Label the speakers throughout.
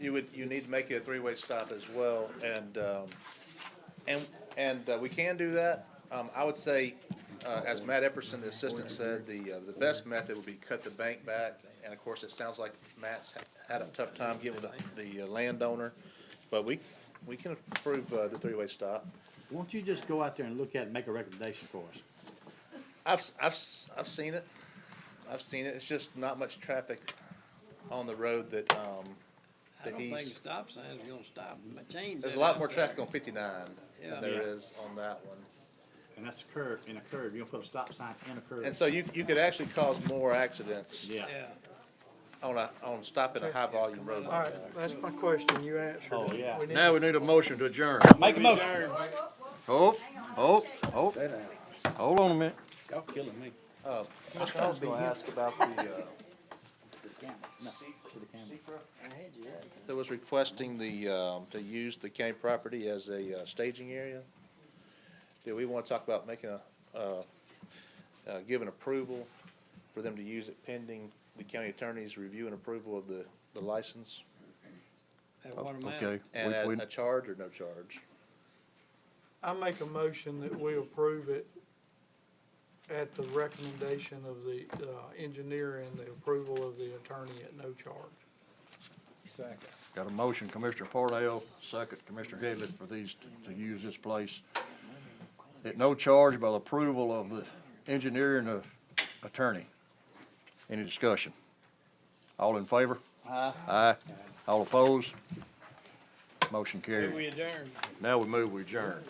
Speaker 1: You would, you need to make it a three-way stop as well, and, um, and, and uh, we can do that. Um, I would say, uh, as Matt Epperson, the assistant, said, the, uh, the best method would be cut the bank back. And of course, it sounds like Matt's ha- had a tough time getting with the, the uh, landowner, but we, we can approve, uh, the three-way stop.
Speaker 2: Won't you just go out there and look at it and make a recommendation for us?
Speaker 1: I've, s- I've, s- I've seen it. I've seen it. It's just not much traffic on the road that, um,
Speaker 3: I
Speaker 1: that
Speaker 3: don't think
Speaker 1: he's,
Speaker 3: stop signs are gonna stop, my change.
Speaker 1: there's a
Speaker 3: that
Speaker 1: lot
Speaker 3: out
Speaker 1: more
Speaker 3: there.
Speaker 1: traffic on fifty-nine
Speaker 3: Yeah.
Speaker 1: than there
Speaker 2: Yeah.
Speaker 1: is on that one.
Speaker 2: And that's a curve, in a curve, you're gonna put a stop sign in a curve.
Speaker 1: And so you, you could actually cause more accidents
Speaker 2: Yeah.
Speaker 3: Yeah,
Speaker 1: on a, on stopping a high-volume road
Speaker 4: All
Speaker 1: like
Speaker 4: right,
Speaker 1: that.
Speaker 4: that's my question, you answered.
Speaker 2: Oh, yeah.
Speaker 4: We need-
Speaker 5: Now we need a motion to adjourn.
Speaker 2: Make a motion.
Speaker 5: Oh, oh, oh. Hold on a minute.
Speaker 3: y'all killing me.
Speaker 1: Uh, Commissioner, I was gonna ask about the, uh, that was requesting the, um, to use the county property as a uh, staging area. Do we wanna talk about making a, uh, uh, giving approval for them to use it pending the county attorney's review and approval of the, the license?
Speaker 3: That
Speaker 1: Oh,
Speaker 3: water
Speaker 5: Okay.
Speaker 3: mountain,
Speaker 1: And
Speaker 5: we-
Speaker 1: at
Speaker 5: we-
Speaker 1: a charge or no charge?
Speaker 4: I make a motion that we approve it at the recommendation of the uh, engineer and the approval of the attorney at no charge.
Speaker 5: Got a motion, Commissioner Parnell, second, Commissioner Headley, for these, to use this place. At no charge by the approval of the engineer and the attorney. Any discussion? All in favor? Aye. Aye. All opposed? Motion
Speaker 3: Here
Speaker 5: carried.
Speaker 3: we adjourn.
Speaker 5: Now we move, we adjourn.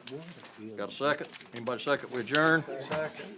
Speaker 5: Got a second? Anybody second, we adjourn?
Speaker 4: Second.